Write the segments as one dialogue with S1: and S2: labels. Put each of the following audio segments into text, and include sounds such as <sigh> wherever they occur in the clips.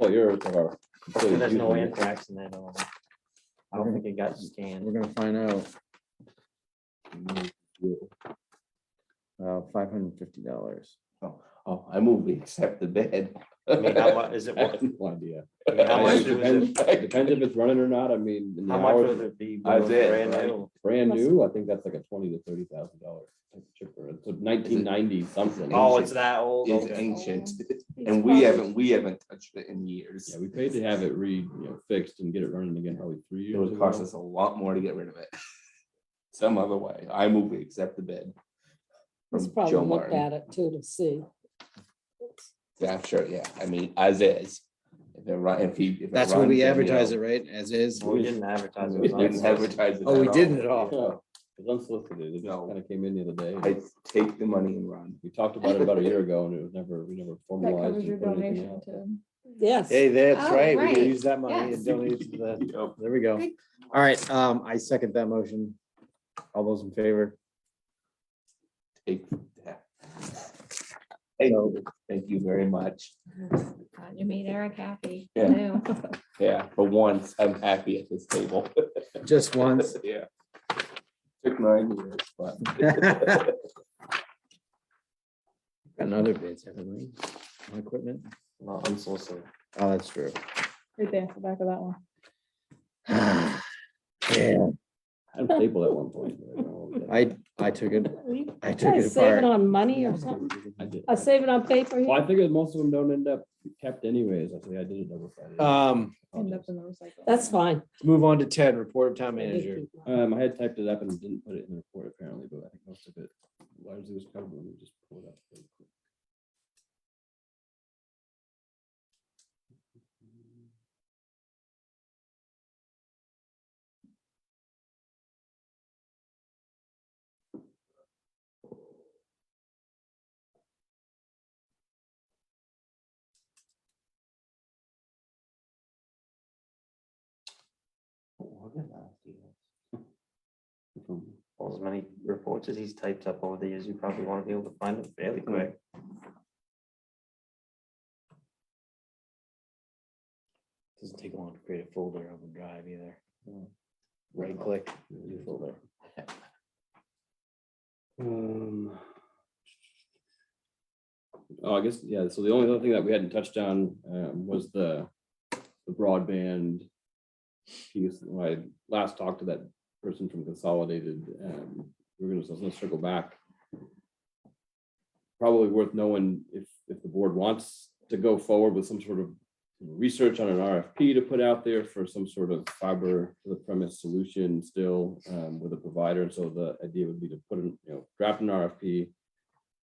S1: players are. completely
S2: So There's no
S1: different.
S2: anthrax in that. at all. I don't think it got scanned.
S3: <laughs> We're gonna find out. Uh, five hundred and fifty dollars.
S4: Oh, I move, we accept the bid.
S2: I mean, how much is it?
S1: <laughs> I
S2: worth-
S1: have no idea.
S2: I mean, How
S1: I-
S2: much
S1: it
S2: was it?
S1: depends- it Depends if it's running or not, I mean. in the
S2: How much
S1: hours,
S2: would it be?
S4: That's it,
S2: brand
S4: right?
S2: new?
S1: Brand new, I think that's like a twenty to thirty thousand dollar chipper, it's nineteen ninety something.
S2: Oh, it's that old?
S4: It's
S2: Okay.
S4: ancient,
S5: It's
S4: and we
S5: probably-
S4: haven't, we haven't touched it in years.
S1: Yeah, we paid to have it re, you know, fixed and get it running again probably three
S4: It
S1: years
S4: would cost
S1: ago.
S4: us a lot more to get rid of it. <laughs> Some other way. I move, we accept the bid.
S5: He's
S4: From
S5: probably
S4: Joe
S5: looked
S4: Martin.
S5: at it too to see.
S4: Yeah, sure, yeah. I mean, as is. If it run, if he. if it
S3: That's what we
S4: runs, then, you know,
S3: advertise it, right? As is.
S2: Well, We didn't advertise it.
S4: <laughs> We didn't
S2: online.
S4: advertise it.
S3: Oh, we
S4: at all.
S3: didn't at
S1: Yeah,
S3: all.
S1: It's unsolicited, it just
S4: No.
S1: kind of came in the other day. and
S4: I take the money and run.
S1: We talked about it about a year ago and it was never, we never
S6: <laughs> That
S1: formalized.
S6: covers
S1: and
S6: your
S1: put anything
S6: donation
S1: out.
S6: to.
S5: Yes.
S3: Hey, that's
S6: Oh,
S3: right. We
S6: right.
S3: can use that money
S6: Yes.
S3: and donate to
S4: <laughs>
S3: the,
S4: Yep.
S3: there we go.
S6: Good.
S3: All right, um, I second that motion. All those in favor?
S4: Take that. Thank you. Thank you very much.
S6: God, You made Eric happy.
S4: Yeah.
S6: New.
S4: Yeah, for once, I'm happy at this table.
S3: Just <laughs> once.
S4: Yeah. Took nine years, but.
S3: Got Another bids, haven't we? On equipment? Uh,
S2: Not unsolicited.
S3: Oh, that's true.
S6: Right there, the back of that one.
S3: <sighs> Yeah,
S1: I had a staple at one point. but I don't know.
S3: I, I took it,
S5: Are
S3: I took
S5: you
S3: it
S5: saving
S3: apart.
S5: on money or something?
S1: I did.
S5: I saving on paper. here?
S1: Well, I figured most of them don't end up kept anyways. I think I did a double sided.
S3: Um,
S6: End up in the recycle.
S5: That's fine.
S3: move on to ten, report of town manager.
S1: Um, I had typed it up and didn't put it in the report apparently, but I think most of it largely was covered. Let me just pull it up. real quick.
S2: Well, As many reports as he's typed up over the years, you probably want to be able to find it fairly quick.
S3: Doesn't take long to create a folder on the drive either. Right click. new folder.
S1: Um, Oh, I guess, yeah, so the only other thing that we hadn't touched on um, was the the broadband piece. When I last talked to that person from Consolidated, um, we we're gonna, so let's circle back. Probably worth knowing if, if the board wants to go forward with some sort of research on an RFP to put out there for some sort of fiber to the premise solution still um, with a provider. And so the idea would be to put in, you know, draft an RFP.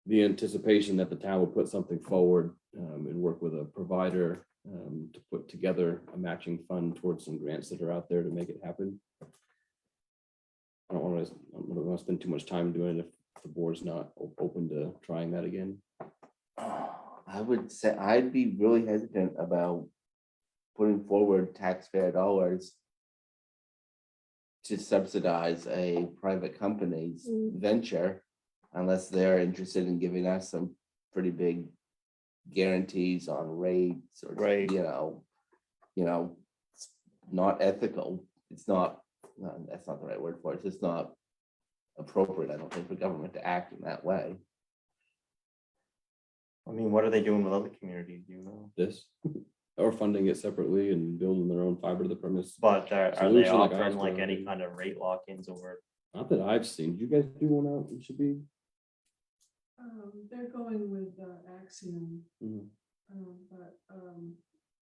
S1: The anticipation that the town will put something forward um, and work with a provider um, to put together a matching fund towards some grants that are out there to make it happen. I don't want to, I don't want to spend too much time doing it if the board's not o- open to trying that again.
S4: I would say, I'd be really hesitant about putting forward taxpayer dollars to subsidize a private company's
S5: Mm.
S4: venture unless they're interested in giving us some pretty big guarantees on rates or,
S2: Right.
S4: you know, you know, it's not ethical. It's not, no, that's not the right word for it. It's just not appropriate, I don't think, for government to act in that way.
S2: I mean, what are they doing with other communities, you know?
S1: this <laughs> or funding it separately and building their own fiber to the premise.
S2: But are are they
S1: Solution like
S2: offering
S1: ours
S2: like
S1: would.
S2: any kind of rate lock-ins over?
S1: Not that I've seen. Did you guys do one out in Shabby?
S7: Um, they're going with uh, Axiom, um, but, um,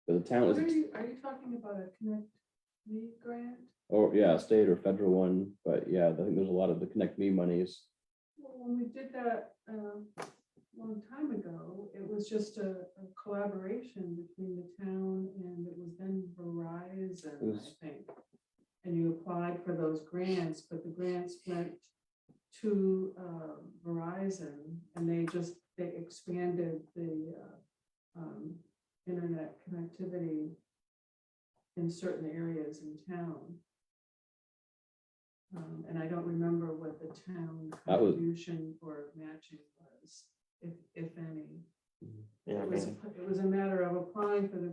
S1: But the town
S7: what
S1: was,
S7: are you, are you talking about a Connect Me grant?
S1: or Oh, yeah, state or federal one, but yeah, I think there's a lot of the Connect Me monies.
S7: Well, When we did that, um, long time ago, it was just a a collaboration between the town and it was then Verizon,
S1: Yes.
S7: I think. And you applied for those grants, but the grants went to, uh, Verizon and they just, they expanded the, uh, um, internet connectivity in certain areas in town. Um, and I don't remember what the town
S1: That was-
S7: contribution or matching was, if, if any.
S2: Yeah, I
S7: It was,
S2: mean-
S7: it was a matter of applying for the